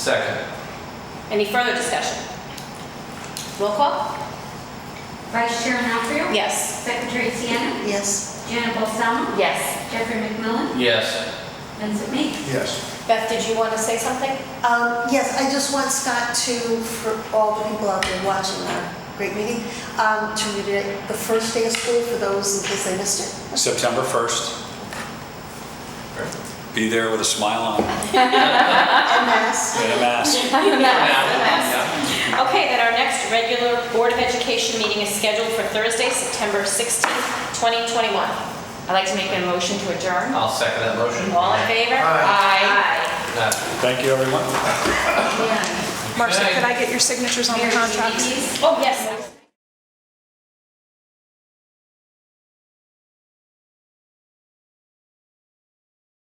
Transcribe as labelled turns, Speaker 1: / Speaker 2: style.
Speaker 1: Second.
Speaker 2: Any further discussion? Roll call?
Speaker 3: Vice Chair Nafrio?
Speaker 2: Yes.
Speaker 3: Secretary Sienna?
Speaker 4: yes,
Speaker 3: Janet Balsamo?
Speaker 2: Yes.
Speaker 3: Jeffrey McMillan?
Speaker 1: Yes.
Speaker 3: Vincent Mee?
Speaker 5: Yes.
Speaker 2: Beth, did you want to say something?
Speaker 4: um, yes, I just want Scott to, for all the people out there watching our great meeting, um, to read it, the first day of school for those in case they missed it.
Speaker 6: September 1st. Be there with a smile on and
Speaker 4: And mass.
Speaker 6: a mask.
Speaker 2: Okay, then our next regular Board of Education meeting is scheduled for Thursday, September 16th, 2021. I'd like to make a motion to adjourn.
Speaker 1: I'll second that motion.
Speaker 2: All in favor? Aye.
Speaker 1: Aye.
Speaker 6: Thank you, everyone.
Speaker 3: Yeah.
Speaker 7: Marcia,
Speaker 1: Okay.
Speaker 7: could I get your signatures on the
Speaker 3: Mary, do you need
Speaker 7: contracts?
Speaker 3: these?
Speaker 2: Oh, yes.